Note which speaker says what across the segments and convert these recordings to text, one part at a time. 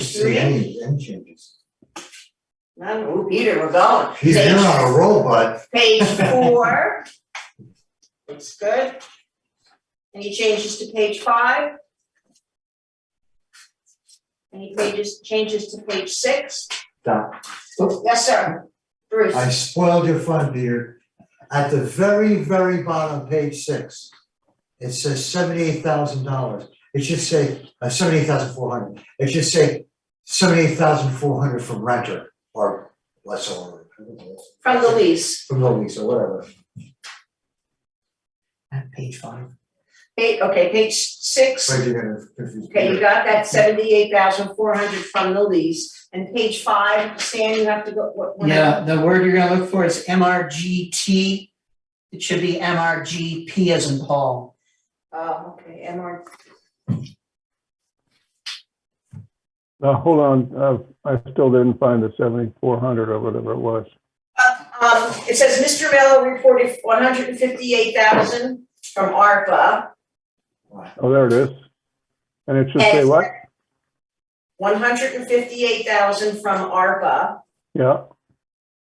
Speaker 1: see any them changes.
Speaker 2: Oh, Peter, we're going.
Speaker 1: He's been on a roll, bud.
Speaker 2: Page page four. Looks good. Any changes to page five? Any pages, changes to page six?
Speaker 1: Doc.
Speaker 2: Yes, sir. Bruce,
Speaker 1: Oh. I spoiled your fun, Peter. At the very, very bottom, page six, it says seventy-eight thousand dollars. It should say, uh, seventy-eight thousand four hundred. It should say seventy-eight thousand four hundred from renter or lessor.
Speaker 2: from the lease.
Speaker 1: From the lease or whatever.
Speaker 3: At page five.
Speaker 2: Eight, okay, page six.
Speaker 1: Right, you're gonna confuse
Speaker 2: Okay, you
Speaker 1: Peter.
Speaker 2: got that seventy-eight thousand four hundred from the lease, and page five, Stan, you have to go, what, what?
Speaker 3: Yeah, the word you're gonna look for is MRGT. It should be MRGP as in Paul.
Speaker 2: Oh, okay, MR,
Speaker 4: Uh, hold on, uh, I still didn't find the seventy-four hundred or whatever it was.
Speaker 2: um, it says Mr. Mello reported one hundred and fifty-eight thousand from ARPA,
Speaker 4: Oh, there it is. And it should say
Speaker 2: Yes.
Speaker 4: what?
Speaker 2: one hundred and fifty-eight thousand from ARPA,
Speaker 4: Yeah,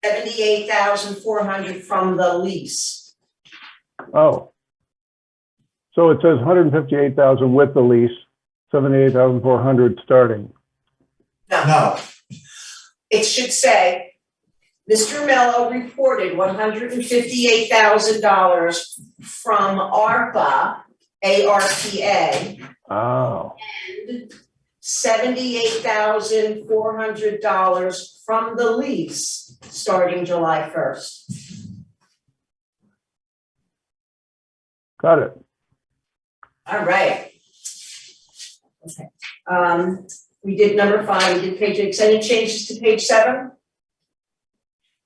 Speaker 2: seventy-eight thousand four hundred from the lease.
Speaker 4: oh. So it says hundred and fifty-eight thousand with the lease, seventy-eight thousand four hundred starting.
Speaker 1: No,
Speaker 2: It should say, Mr. Mello reported one hundred and fifty-eight thousand dollars from ARPA, A-R-P-A,
Speaker 4: Oh,
Speaker 2: seventy-eight thousand four hundred dollars from the lease starting July first.
Speaker 4: got it.
Speaker 2: All right. Okay, um, we did number five, we did page six, any changes to page seven?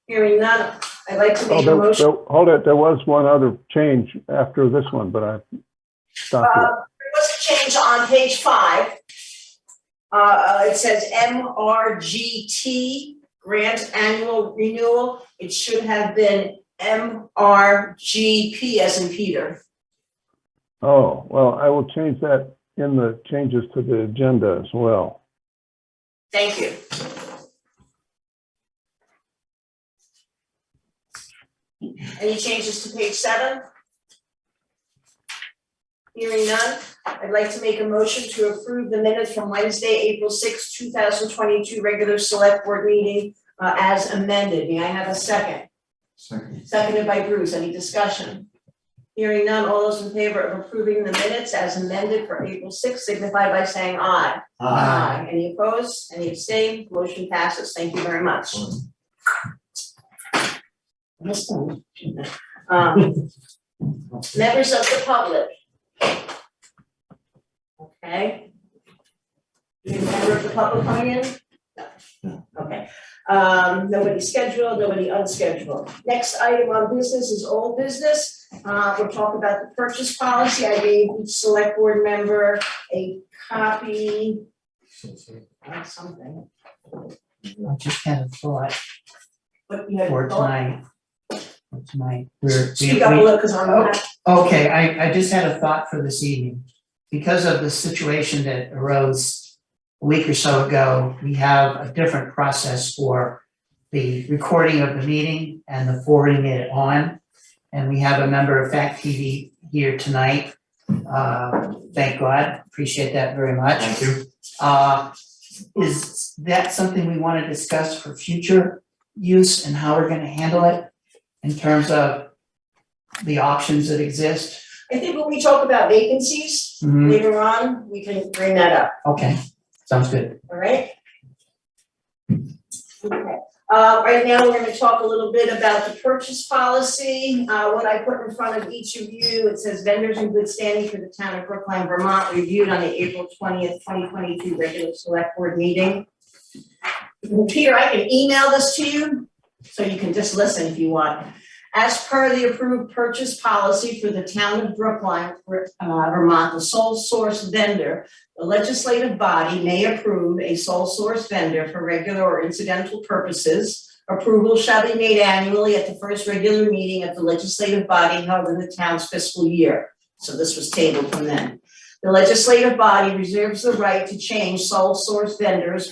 Speaker 2: Hearing none, I'd like to
Speaker 4: Oh,
Speaker 2: make a
Speaker 4: there,
Speaker 2: motion,
Speaker 4: there, hold it, there was one other change after this one, but I stopped
Speaker 2: uh,
Speaker 4: it.
Speaker 2: there was a change on page five. Uh, Uh, it says M R G T, grant annual renewal, it should have been M R G P as in Peter.
Speaker 4: Oh, well, I will change that in the changes to the agenda as well.
Speaker 2: Thank you. Any changes to page seven? Hearing none, I'd like to make a motion to approve the minutes from Wednesday, April sixth, two thousand twenty-two, regular select board meeting uh, as amended. May I have a second?
Speaker 1: second,
Speaker 2: Seconded by Bruce. Any discussion? Hearing none, all those in favor of approving the minutes as amended for April sixth signify by saying aye.
Speaker 1: ah,
Speaker 2: Aye. Uh, Any opposed? Any abstained? Motion passes. Thank you very much. Um, Members of the public. Okay. Any member of the public coming in? No. Okay. Um, Nobody scheduled, nobody unscheduled. Next item on business is old business. Uh, We'll talk about the purchase policy. I gave each select board member a copy of something.
Speaker 3: I just had a thought
Speaker 2: But you had.
Speaker 3: for tonight. For tonight. We're- we-
Speaker 2: Speak up a
Speaker 3: we-
Speaker 2: little, because I'm not.
Speaker 3: Okay, I, I just had a thought for this evening. Because of the situation that arose a week or so ago, we have a different process for the recording of the meeting and the forwarding it on. And we have a member of Fact TV here tonight. Uh, thank God, appreciate that very much.
Speaker 1: thank you.
Speaker 3: Uh, is that something we wanna discuss for future use and how we're gonna handle it? In terms of the options that exist?
Speaker 2: I think when we talk about vacancies
Speaker 3: Mhm,
Speaker 2: later on, we can bring that up,
Speaker 3: okay, sounds good.
Speaker 2: all right? Okay, uh, right now, we're gonna talk a little bit about the purchase policy, uh, what I put in front of each of you, it says vendors in good standing for the town of Brookline, Vermont, reviewed on the April twentieth, twenty twenty-two regular select board meeting. Peter, I can email this to you, so you can just listen if you want. As per the approved purchase policy for the town of Brookline, Ver- uh, Vermont, the sole source vendor, the legislative body may approve a sole source vendor for regular or incidental purposes. Approval shall be made annually at the first regular meeting of the legislative body held in the town's fiscal year. So this was tabled from then. The legislative body reserves the right to change sole source vendors